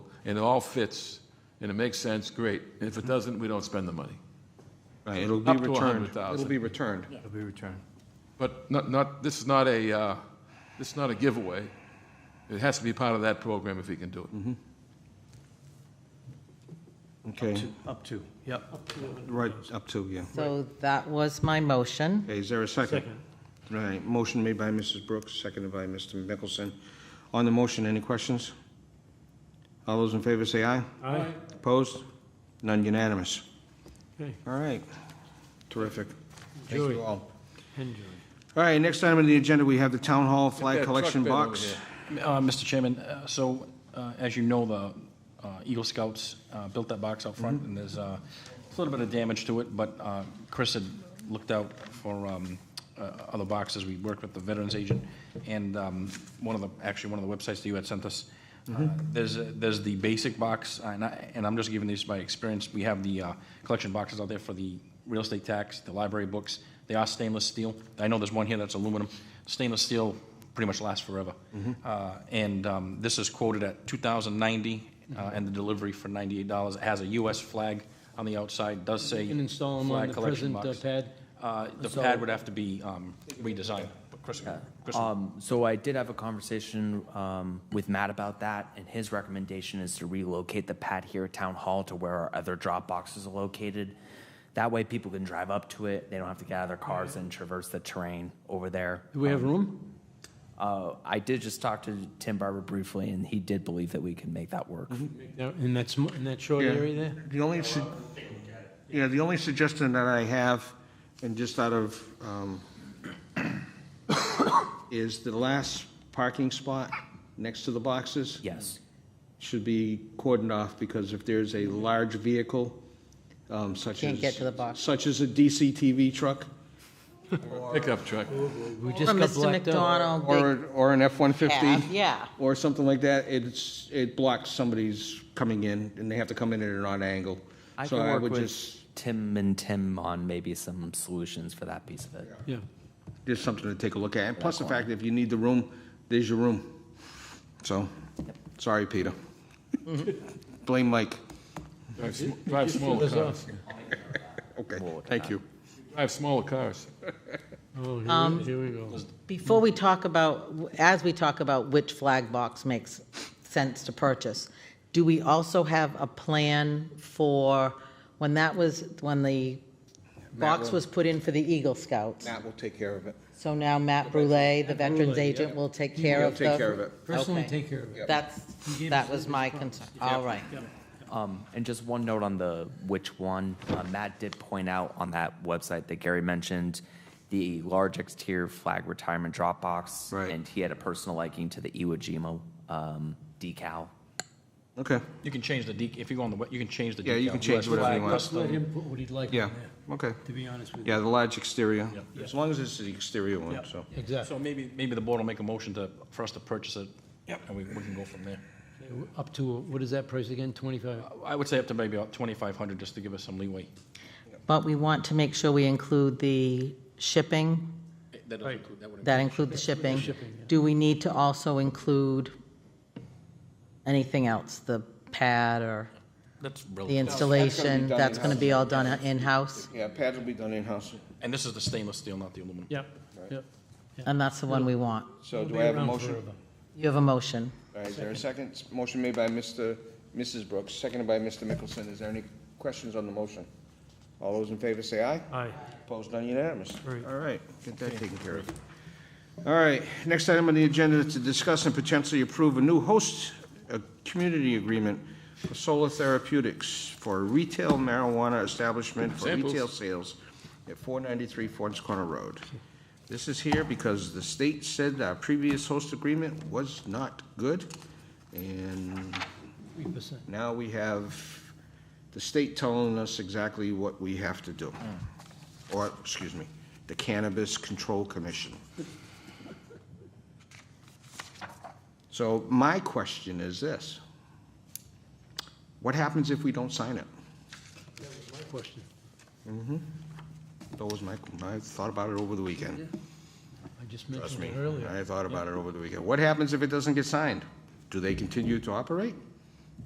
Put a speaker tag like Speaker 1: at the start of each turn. Speaker 1: and it all fits, and it makes sense, great. And if it doesn't, we don't spend the money.
Speaker 2: Right, it'll be
Speaker 1: Up to a hundred
Speaker 2: returned. It'll
Speaker 1: thousand.
Speaker 2: be returned.
Speaker 3: Yeah.
Speaker 4: It'll be returned.
Speaker 1: But not, not, this is not a, uh, this is not a giveaway. It has to be part of that program if he can do it.
Speaker 2: Okay,
Speaker 4: Two- Up to, yep.
Speaker 2: right, up to, yeah.
Speaker 5: So that was my motion.
Speaker 2: Okay, is there a second? Right, motion made by Mrs. Brooks, seconded by Mr. Mickelson. On the motion, any questions? All those in favor say aye.
Speaker 4: Aye.
Speaker 2: Opposed? None unanimous.
Speaker 4: Okay,
Speaker 2: All right, terrific. Thank
Speaker 4: Enjoy.
Speaker 2: you all.
Speaker 4: enjoy.
Speaker 2: All right, next item on the agenda, we have the Town Hall
Speaker 1: that
Speaker 2: Flag
Speaker 1: truck
Speaker 2: Collection
Speaker 1: bin over
Speaker 2: Box.
Speaker 1: here.
Speaker 6: Uh, Mr. Chairman, uh, so uh, as you know, the uh, Eagle Scouts uh, built that box out front, and there's uh, a little bit of damage to it, but uh, Chris had looked out for um, uh, other boxes. We worked with the Veterans Agent, and um, one of the, actually, one of the websites that you had sent us. uh, There's, a- there's the basic box, and I, and I'm just giving this by experience. We have the uh, collection boxes out there for the real estate tax, the library books. They are stainless steel. I know there's one here that's aluminum. Stainless steel pretty much lasts forever. Uh, And um, this is quoted at $2,090, uh, and the delivery for $98. It has a US flag on the outside, does say.
Speaker 4: You can install 'em on
Speaker 6: flag
Speaker 4: the
Speaker 6: collection
Speaker 4: present, uh,
Speaker 6: box.
Speaker 4: pad?
Speaker 6: Uh, The
Speaker 3: So-
Speaker 6: pad would have to be um, redesigned. But Chris- Chris-
Speaker 3: Um, so I did have a conversation um, with Matt about that, and his recommendation is to relocate the pad here at Town Hall to where our other drop boxes are located. That way, people can drive up to it. They don't have to get out of their cars and traverse the terrain over there. Um,
Speaker 4: Do we have room?
Speaker 3: Uh, I did just talk to Tim Barber briefly, and he did believe that we can make that work.
Speaker 4: Yeah, In that, sm- in that short
Speaker 2: Yeah.
Speaker 4: area there?
Speaker 2: The only, su- yeah, the only suggestion that I have, and just out of, um, is the last parking spot next to the boxes
Speaker 3: Yes.
Speaker 2: should be cordoned off, because if there's a large vehicle, um, such as.
Speaker 5: Can't get to the box.
Speaker 2: Such as a DCTV truck,
Speaker 1: Pickup truck.
Speaker 4: We just
Speaker 5: From
Speaker 4: got
Speaker 5: Mr.
Speaker 4: blacked out.
Speaker 5: McDonald, big
Speaker 2: or, or an F-150.
Speaker 5: cab, yeah.
Speaker 2: Or something like that, it's, it blocks somebody's coming in, and they have to come in at an odd angle.
Speaker 3: I
Speaker 2: So
Speaker 3: can
Speaker 2: I
Speaker 3: work
Speaker 2: would
Speaker 3: with
Speaker 2: just,
Speaker 3: Tim and Tim on maybe some solutions for that piece of it.
Speaker 4: Yeah.
Speaker 2: just something to take a look at. And plus the fact, that if you need the room, there's your room. So, sorry, Peter. Blame Mike.
Speaker 1: Drive sm- Drive smaller cars.
Speaker 2: Okay, thank you.
Speaker 1: Drive smaller cars.
Speaker 4: Oh, here we- here we go.
Speaker 5: Before we talk about, as we talk about which flag box makes sense to purchase, do we also have a plan for, when that was, when the box was put in for the Eagle Scouts?
Speaker 2: Matt will take care of it.
Speaker 5: So now Matt Brule, the veterans
Speaker 4: Brule,
Speaker 5: agent, will take care
Speaker 2: He'll
Speaker 5: of the.
Speaker 2: take care of it.
Speaker 4: Chris will
Speaker 5: Okay.
Speaker 4: take care of it.
Speaker 5: That's, that was my concern. All right.
Speaker 3: Um, and just one note on the which one, uh, Matt did point out on that website that Gary mentioned, the large exterior flag retirement drop box.
Speaker 2: Right.
Speaker 3: And he had a personal liking to the Iwo Jima, um, decal.
Speaker 2: Okay,
Speaker 6: You can change the, dec- if you go on the, we- you can change the.
Speaker 2: Yeah, you
Speaker 6: decal.
Speaker 2: can change
Speaker 6: US
Speaker 2: whatever you
Speaker 6: flag,
Speaker 2: want.
Speaker 6: custom.
Speaker 4: Let him put what he'd like
Speaker 2: yeah,
Speaker 4: on there,
Speaker 2: okay.
Speaker 4: to be honest with you.
Speaker 2: Yeah, the large exterior, as long as it's the exterior one, so.
Speaker 4: Exactly.
Speaker 6: So maybe, maybe the board will make a motion to, for us to purchase it. And we, we can go from there.
Speaker 4: Up to, what is that price again, 25?
Speaker 6: I would say up to maybe about 2,500, just to give us some leeway.
Speaker 5: But we want to make sure we include the shipping,
Speaker 6: That doesn't include- that would
Speaker 5: that include the shipping.
Speaker 4: shipping, yeah.
Speaker 5: Do we need to also include anything else, the pad or
Speaker 6: That's
Speaker 5: the
Speaker 6: brilliant.
Speaker 5: installation?
Speaker 2: done
Speaker 5: That's going to be all done in-house?
Speaker 2: Yeah, pads will be done in-house.
Speaker 6: And this is the stainless steel, not the aluminum.
Speaker 4: Yep, yep.
Speaker 5: And that's the one we want.
Speaker 2: So
Speaker 4: It'll
Speaker 2: do
Speaker 4: be
Speaker 2: I have a
Speaker 4: around
Speaker 2: motion?
Speaker 4: forever.
Speaker 5: You have a motion.
Speaker 2: All right, is there a second? Motion made by Mr., Mrs. Brooks, seconded by Mr. Mickelson. Is there any questions on the motion? All those in favor say aye.
Speaker 4: Aye.
Speaker 2: Opposed, none unanimous.
Speaker 4: Right.
Speaker 2: All right, get that taken care of. All right, next item on the agenda is to discuss and potentially approve a new host, a community agreement for Solar Therapeutics for a retail marijuana establishment for
Speaker 1: Samples.
Speaker 2: retail sales at 493 Ford's Corner Road. This is here because the state said our previous host agreement was not good, and
Speaker 4: 3%.
Speaker 2: now we have the state telling us exactly what we have to do. Or, excuse me, the Cannabis Control Commission. So my question is this. What happens if we don't sign it?
Speaker 4: My question.
Speaker 2: That was my, I thought about it over the weekend.
Speaker 4: I just
Speaker 2: Trust
Speaker 4: mentioned
Speaker 2: me,
Speaker 4: it earlier.
Speaker 2: I thought about it over the weekend. What happens if it doesn't get signed? Do they continue to operate?